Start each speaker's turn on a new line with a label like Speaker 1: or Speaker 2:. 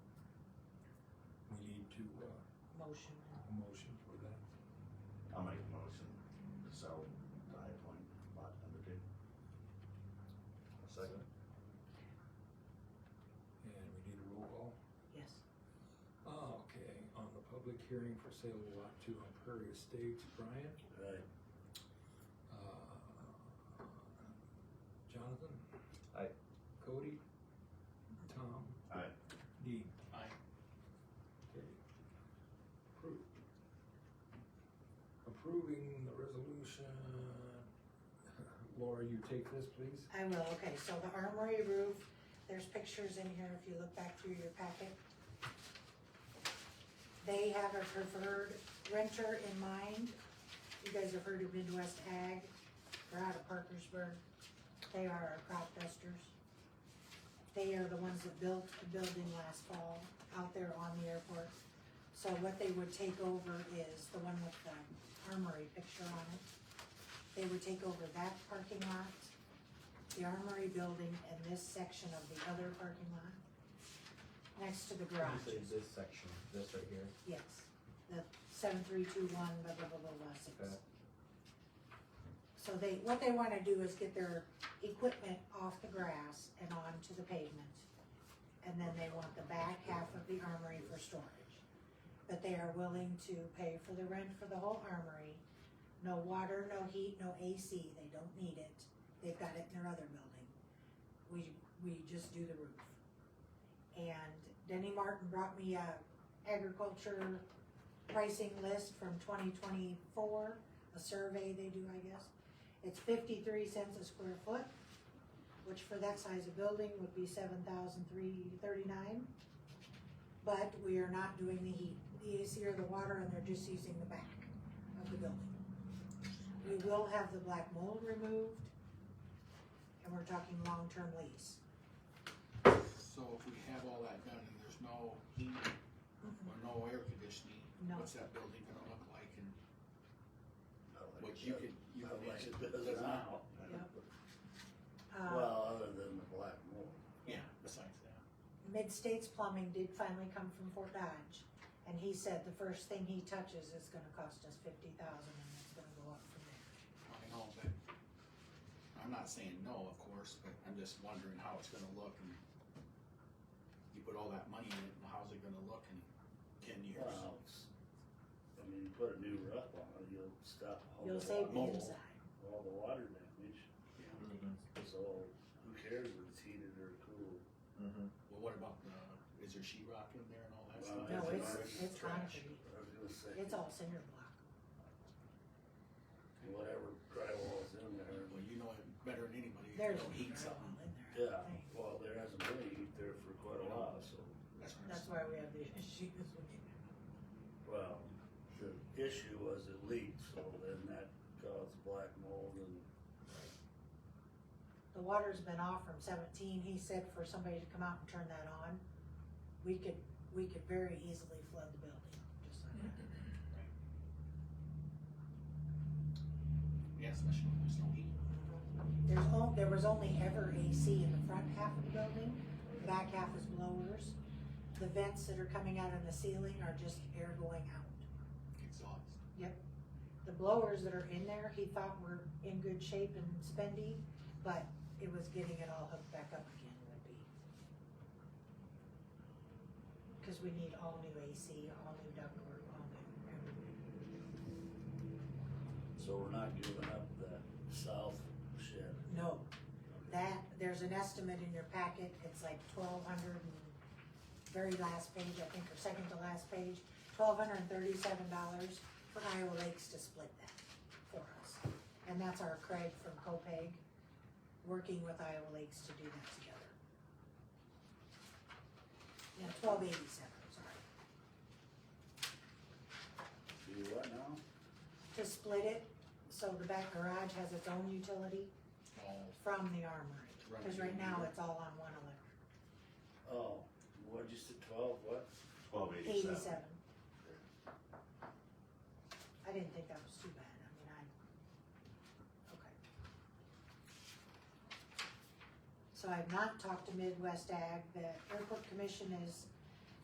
Speaker 1: to, uh,
Speaker 2: motion.
Speaker 1: a motion for that.
Speaker 3: I'll make a motion to sell the High Point lot number two. Second.
Speaker 1: And we need a roll call.
Speaker 2: Yes.
Speaker 1: Oh, okay, on the public hearing for sale of lot two on Prairie Estates, Brian,
Speaker 3: Right.
Speaker 1: uh, Jonathan?
Speaker 3: Aye.
Speaker 1: Cody? Tom?
Speaker 3: Aye.
Speaker 1: Dean? Aye. Okay. Approved. Approving the resolution, Laura, you take this, please?
Speaker 2: I will, okay, so the armory roof, there's pictures in here if you look back through your packet. They have a preferred renter in mind. You guys have heard of Midwest Ag, they're out of Parkersburg. They are our crop dusters. They are the ones that built the building last fall out there on the airport. So what they would take over is the one with the armory picture on it. They would take over that parking lot the armory building and this section of the other parking lot, next to the garage,
Speaker 4: Usually this section, this right here,
Speaker 2: yes, the seven, three, two, one, blah, blah, blah, blah, blah,
Speaker 4: Okay.
Speaker 2: six. So they, what they wanna do is get their equipment off the grass and onto the pavement. And then they want the back half of the armory for storage. But they are willing to pay for the rent for the whole armory, no water, no heat, no AC, they don't need it, they've got it in their other building. We, we just do the roof. And Denny Martin brought me a agriculture pricing list from twenty twenty-four, a survey they do, I guess. It's fifty-three cents a square foot, which for that size of building would be seven thousand three thirty-nine. But we are not doing the heat, the AC or the water, and they're just using the back of the building. We will have the black mold removed, and we're talking long-term lease.
Speaker 5: So if we have all that done and there's no heat or no air conditioning,
Speaker 2: No.
Speaker 5: what's that building gonna look like and what
Speaker 3: What
Speaker 5: you could, you
Speaker 3: Not
Speaker 5: could
Speaker 3: like
Speaker 5: mention?
Speaker 3: it does now.
Speaker 2: Uh,
Speaker 3: Well, other than the black mold.
Speaker 5: Yeah, besides that.
Speaker 2: Mid-States Plumbing did finally come from Fort Dodge, and he said the first thing he touches is gonna cost us fifty thousand, and it's gonna go up from
Speaker 3: Oh,
Speaker 2: there.
Speaker 5: I know, but I'm not saying no, of course, but I'm just wondering how it's gonna look and you put all that money in it, and how's it gonna look in ten years?
Speaker 3: Well, it's- I mean, you put a new roof on it, you'll stop all the
Speaker 2: You'll save the
Speaker 3: water,
Speaker 5: mold.
Speaker 2: inside.
Speaker 3: all the water damage. So who cares if it's heated or cooled?
Speaker 5: Well, what about the, is there sheetrock in there and all that
Speaker 3: Well,
Speaker 5: stuff?
Speaker 2: No,
Speaker 3: That's
Speaker 2: it's,
Speaker 3: an
Speaker 2: it's
Speaker 5: Trash.
Speaker 2: concrete,
Speaker 3: I was gonna say,
Speaker 2: it's all cinder block.
Speaker 3: whatever drywall's in there.
Speaker 5: Well, you know it better than anybody, if you
Speaker 2: There's
Speaker 5: don't heat
Speaker 2: drywall
Speaker 5: something.
Speaker 2: in there.
Speaker 3: Yeah,
Speaker 2: Right.
Speaker 3: well, there hasn't been any heat there for quite a while, so,
Speaker 5: That's what I'm
Speaker 2: That's
Speaker 5: saying.
Speaker 2: why we have the issues with it.
Speaker 3: well, the issue was it leaked, so then that caused black mold and
Speaker 2: The water's been off from seventeen, he said for somebody to come out and turn that on, we could, we could very easily flood the building, just like that.
Speaker 5: Yeah, especially when there's no heat.
Speaker 2: There's on, there was only ever AC in the front half of the building, the back half is blowers. The vents that are coming out in the ceiling are just air going out.
Speaker 5: Exhaust.
Speaker 2: The blowers that are in there, he thought were in good shape and spendy, but it was getting it all hooked back up again would be. Cause we need all new AC, all new ductwork, all new everything.
Speaker 3: So we're not giving up that south shed.
Speaker 2: No, that, there's an estimate in your packet, it's like twelve hundred and, very last page, I think, or second to last page, twelve hundred and thirty-seven dollars for Iowa Lakes to split that for us. And that's our Craig from Copeg, working with Iowa Lakes to do that together. Yeah, twelve eighty-seven, sorry,
Speaker 3: Do what now?
Speaker 2: to split it, so the back garage has its own utility
Speaker 5: Oh,
Speaker 2: from the armory, cause right now it's all on one electric.
Speaker 3: Oh, what, just the twelve, what?
Speaker 6: Twelve eighty-seven.
Speaker 2: Eighty-seven. I didn't think that was too bad, I mean, I, okay. So I've not talked to Midwest Ag, the airport commission is